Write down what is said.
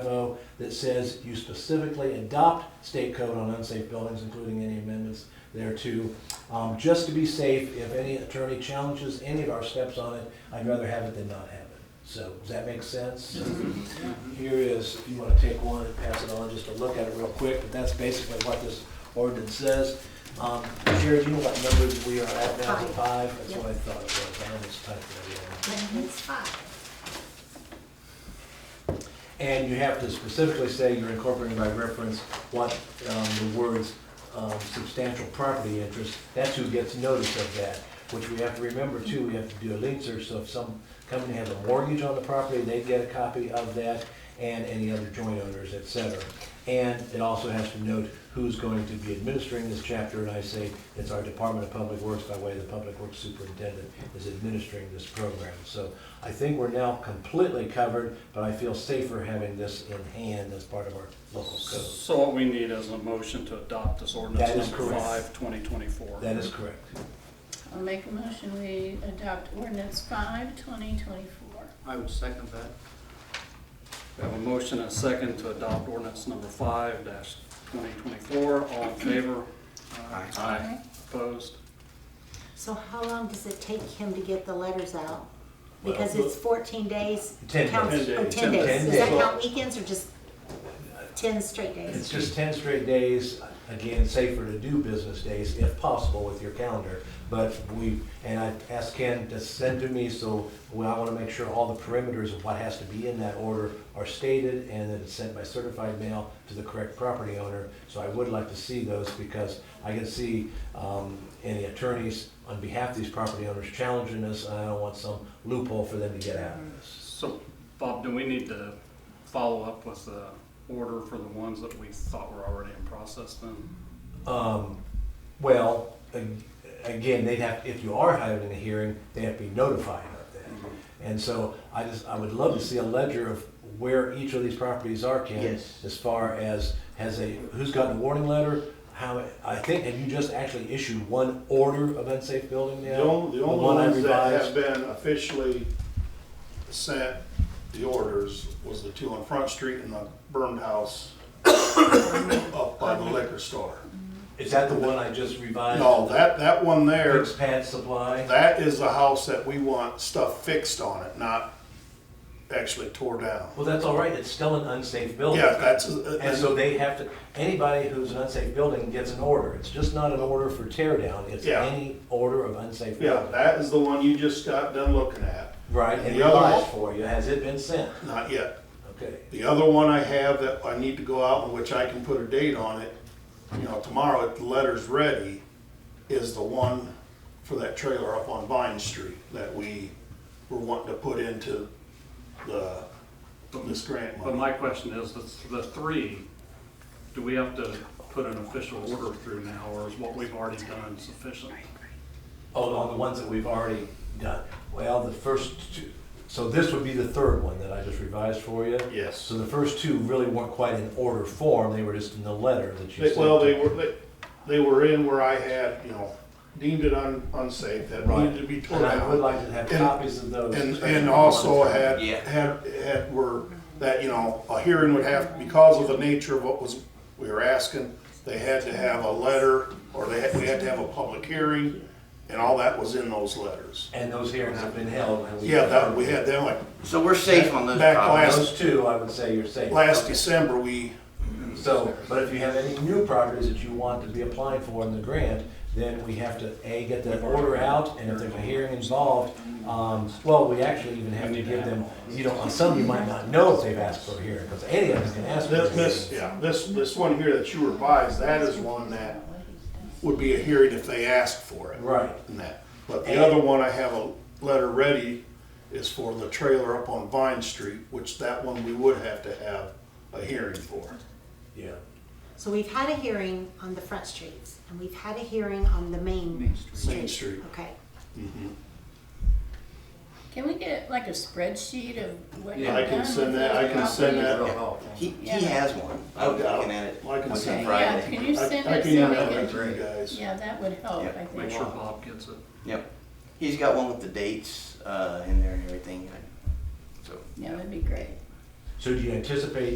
5.0 that says you specifically adopt state code on unsafe buildings, including any amendments thereto. Um, Just to be safe, if any attorney challenges any of our steps on it, I'd rather have it than not have it. So, does that make sense? Here is, if you want to take one and pass it on, just to look at it real quick, but that's basically what this ordinance says. Um, Sherry, do you know what numbers we are at now? Is it Five, that's what I thought it was, I almost typed that in. It's five. And you have to specifically say you're incorporating by reference what um, the words um, substantial property interest, that's who gets notice of that, which we have to remember too, we have to do a lien search, so if some company has a mortgage on the property, they get a copy of that, and any other joint owners, et cetera. And it also has to note who's going to be administering this chapter, and I say it's our Department of Public Works by way of the Public Works Superintendent is administering this program. So I think we're now completely covered, but I feel safer having this in hand as part of our local code. So what we need is a motion to adopt this ordinance That is number correct. five, twenty twenty-four. That is correct. I'll make a motion, we adopt ordinance five, twenty twenty-four. I would second that. We have a motion and a second to adopt ordinance number five dash twenty twenty-four. All in favor? Aye. Opposed? So how long does it take him to get the letters out? Because Well, it's fourteen days. Ten counts- days. oh, Ten Ten days. days. Ten Does that days. count weekends or just ten straight It's days? just ten straight days, again, safer to do business days if possible with your calendar. But we, and I asked Ken to send to me, so well, I wanna make sure all the perimeters of what has to be in that order are stated and that it's sent by certified mail to the correct property owner. So I would like to see those because I can see, um, any attorneys on behalf of these property owners challenging us. and I don't want some loophole for them to get out of this. So, Bob, do we need to follow up with the order for the ones that we thought were already in process then? Um, well, ag- again, they'd have, if you are having a hearing, they have to be notified of that. And so I just, I would love to see a ledger of where each of these properties are, Ken. Yes. As far as, has a, who's gotten a warning letter, how, I think, have you just actually issued one order of unsafe building now? The only, the only one I ones that revised? have been officially sent the orders was the two on Front Street and the burned house up by the liquor store. Is that the one I just revised? No, that, that one there, Fix pad supply? that is the house that we want stuff fixed on it, not actually tore down. Well, that's all right, it's still an unsafe building. Yeah, that's, uh, And so they have to, anybody who's an unsafe building gets an order. It's just not an order for tear down, it's Yeah. any order of unsafe yeah, building. that is the one you just got done looking at. Right, and The other revised one- for you, has it been sent? Not yet. Okay, The other one I have that I need to go out and which I can put a date on it, you know, tomorrow if the letter's ready, is the one for that trailer up on Vine Street that we were wanting to put into the, this grant But money. my question is, the- the three, do we have to put an official order through now, or is what we've already done sufficient? oh, on the ones that we've already done. Well, the first two, so this would be the third one that I just revised for you? Yes. So the first two really weren't quite in order form, they were just in the letter that you They- sent. Well, they were, they, they were in where I had, you know, deemed it un- unsafe, that Right. needed to be torn And I would down. like to have And- copies of those. And, especially and the also ones that- had, had, had, were, that, you know, a hearing would have, because of the nature of what was, we were asking, they had to have a letter, or they had, we had to have a public hearing, and all that was in those letters. And those hearings have been held. and we- Yeah, that, we had them, like, So we're safe on those Back problems. Those two, I would say you're safe. last December, we, So, but if you have any new properties that you want to be applying for in the grant, then we have to, A, get that order out, and if there's a hearing involved, um, well, we actually even have to give them, you know, on some you might not know if they've asked for a hearing, because any of us can ask for a this, this, hearing. yeah, this, this one here that you revised, that is one that would be a hearing if they asked for it. Right, and that. But the other one, I have a letter ready, is for the trailer up on Vine Street, which that one we would have to have a hearing for. yeah. So we've had a hearing on the front streets and we've had a hearing on the main street. Main Street. Mm-hmm. Okay. Can we get like a spreadsheet of what you've I done can send with that, I those can send that. properties? He, he Yeah. has one. Oh, I was looking at it. I can on send- Yeah, Friday. can you I- send I it can so email we that can, to you guys. yeah, that would help, Yeah, I Make think. sure Bob gets it. Yep. He's got one with the dates uh, in there and everything. So. Yeah, that'd be great. So do you anticipate